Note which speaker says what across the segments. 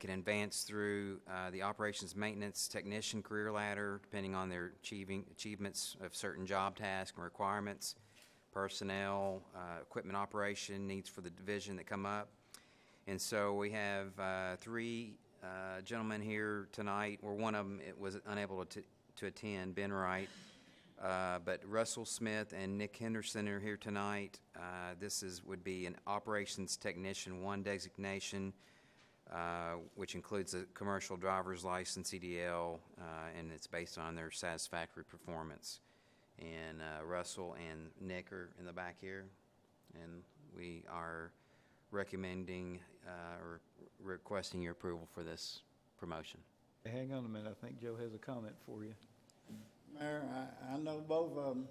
Speaker 1: can advance through uh, the operations maintenance technician career ladder, depending on their achieving, achievements of certain job tasks and requirements, personnel, uh, equipment operation, needs for the division that come up. And so we have uh, three uh, gentlemen here tonight, or one of them was unable to to attend, Ben Wright. Uh, But Russell Smith and Nick Henderson are here tonight. Uh, This is, would be an Operations Technician 1 designation, uh, which includes a commercial driver's license, CDL, uh, and it's based on their satisfactory performance. And uh, Russell and Nick are in the back here, and we are recommending uh, or requesting your approval for this promotion.
Speaker 2: Hey, Hang on a minute, I think Joe has a comment for you.
Speaker 3: Mayor, I, I know both of them.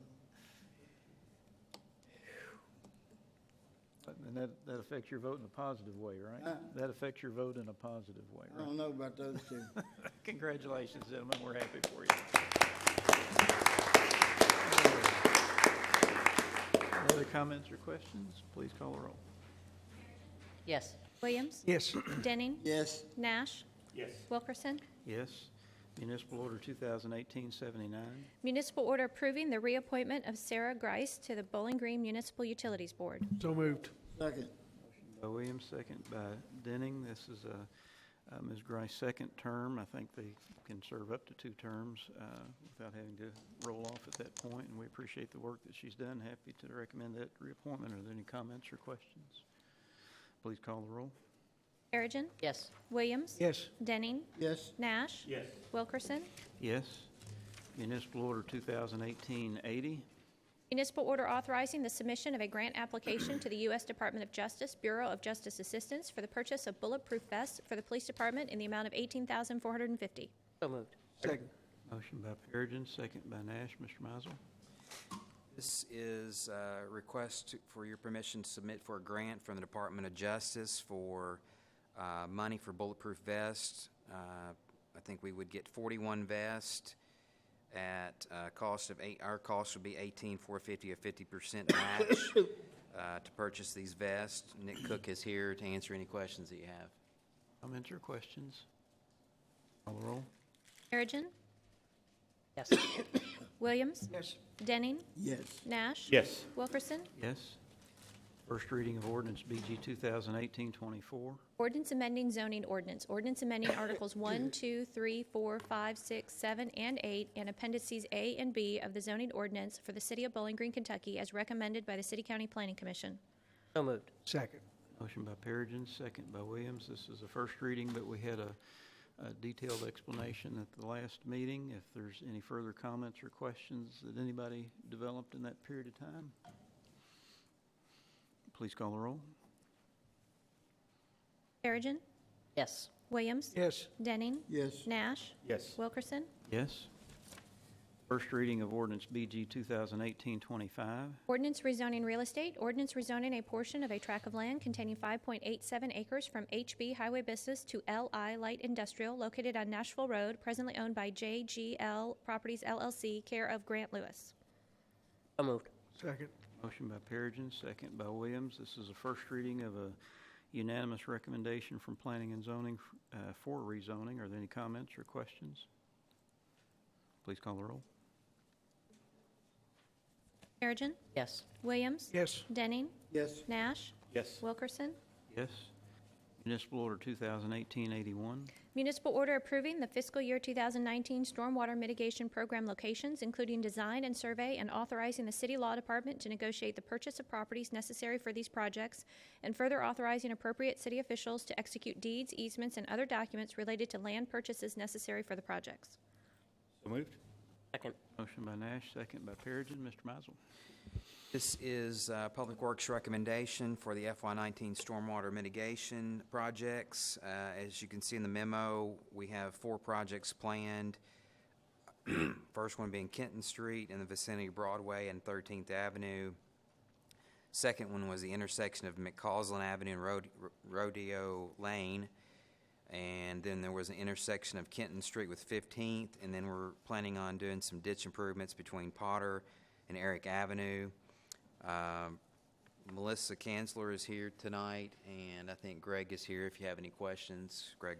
Speaker 2: And that, that affects your vote in a positive way, right?
Speaker 3: Huh?
Speaker 2: That affects your vote in a positive way,
Speaker 3: I
Speaker 2: right?
Speaker 3: don't know about those two.
Speaker 2: Congratulations, gentlemen, we're happy for you. Any Other comments or questions? Please call the roll.
Speaker 4: Yes.
Speaker 5: Williams?
Speaker 2: Yes.
Speaker 5: Denning?
Speaker 3: Yes,
Speaker 5: Nash?
Speaker 6: yes,
Speaker 5: Wilkerson?
Speaker 2: Yes. Municipal Order 2018-79.
Speaker 5: Municipal order approving the reappointment of Sarah Grice to the Bowling Green Municipal Utilities Board.
Speaker 7: So moved.
Speaker 3: second,
Speaker 2: By Williams, second by Denning. This is uh, uh, Ms. Grice's second term. I think they can serve up to two terms uh, without having to roll off at that point, and we appreciate the work that she's done. Happy to recommend that reappointment. Are there any comments or questions? Please call the roll.
Speaker 5: Perigin.
Speaker 4: Yes.
Speaker 5: Williams?
Speaker 7: Yes.
Speaker 5: Denning?
Speaker 3: yes,
Speaker 5: Nash?
Speaker 6: yes,
Speaker 5: Wilkerson?
Speaker 2: Yes. Municipal Order 2018-80.
Speaker 5: Municipal order authorizing the submission of a grant application to the U.S. Department of Justice Bureau of Justice Assistance for the purchase of bulletproof vests for the police department in the amount of $18,450.
Speaker 4: So moved.
Speaker 7: Second.
Speaker 2: Motion by Perigin, second by Nash. Mr. Mizel.
Speaker 1: This is a request to- for your permission to submit for a grant from the Department of Justice for uh, money for bulletproof vests. Uh, I think we would get 41 vests at a cost of eight, our cost would be 18,450, a 50% match uh, to purchase these vests. Nick Cook is here to answer any questions that you have.
Speaker 2: Comments or questions? Call the roll.
Speaker 5: Perigin.
Speaker 4: Yes.
Speaker 5: Williams?
Speaker 7: Yes.
Speaker 5: Denning?
Speaker 3: yes,
Speaker 5: Nash?
Speaker 6: yes,
Speaker 5: Wilkerson?
Speaker 2: Yes. First reading of ordinance BG 2018-24.
Speaker 5: Ordinance amending zoning ordinance. Ordinance amending Articles 1, 2, 3, 4, 5, 6, 7, and 8, and appendices A and B of the zoning ordinance for the city of Bowling Green, Kentucky, as recommended by the City County Planning Commission.
Speaker 4: So moved.
Speaker 7: Second.
Speaker 2: Motion by Perigin, second by Williams. This is the first reading, but we had a a detailed explanation at the last meeting. If there's any further comments or questions that anybody developed in that period of time, please call the roll.
Speaker 5: Perigin.
Speaker 4: Yes.
Speaker 5: Williams.
Speaker 7: Yes.
Speaker 5: Denning.
Speaker 3: yes,
Speaker 5: Nash.
Speaker 6: yes,
Speaker 5: Wilkerson.
Speaker 2: Yes. First reading of ordinance BG 2018-25.
Speaker 5: Ordinance rezoning real estate. Ordinance rezoning a portion of a tract of land containing 5.87 acres from HB Highway Business to LI Light Industrial located on Nashville Road, presently owned by JGL Properties LLC, care of Grant Lewis.
Speaker 4: So moved.
Speaker 7: Second.
Speaker 2: Motion by Perigin, second by Williams. This is a first reading of a unanimous recommendation from Planning and Zoning uh, for rezoning. Are there any comments or questions? Please call the roll.
Speaker 5: Perigin.
Speaker 4: Yes.
Speaker 5: Williams.
Speaker 7: Yes.
Speaker 5: Denning.
Speaker 3: yes,
Speaker 5: Nash.
Speaker 6: yes,
Speaker 5: Wilkerson.
Speaker 2: Yes. Municipal Order 2018-81.
Speaker 5: Municipal order approving the fiscal year 2019 stormwater mitigation program locations, including design and survey, and authorizing the city law department to negotiate the purchase of properties necessary for these projects, and further authorizing appropriate city officials to execute deeds, easements, and other documents related to land purchases necessary for the projects.
Speaker 6: so moved,
Speaker 4: Second.
Speaker 2: Motion by Nash, second by Perigin. Mr. Mizel.
Speaker 1: This is uh, Public Works recommendation for the FY19 stormwater mitigation projects. Uh, As you can see in the memo, we have four projects planned. First one being Kenton Street in the vicinity of Broadway and 13th Avenue. Second one was the intersection of McCausland Avenue and Rode- Rodeo Lane. And then there was an intersection of Kenton Street with 15th, and then we're planning on doing some ditch improvements between Potter and Eric Avenue. Um, Melissa Kanzler is here tonight, and I think Greg is here if you have any questions. Greg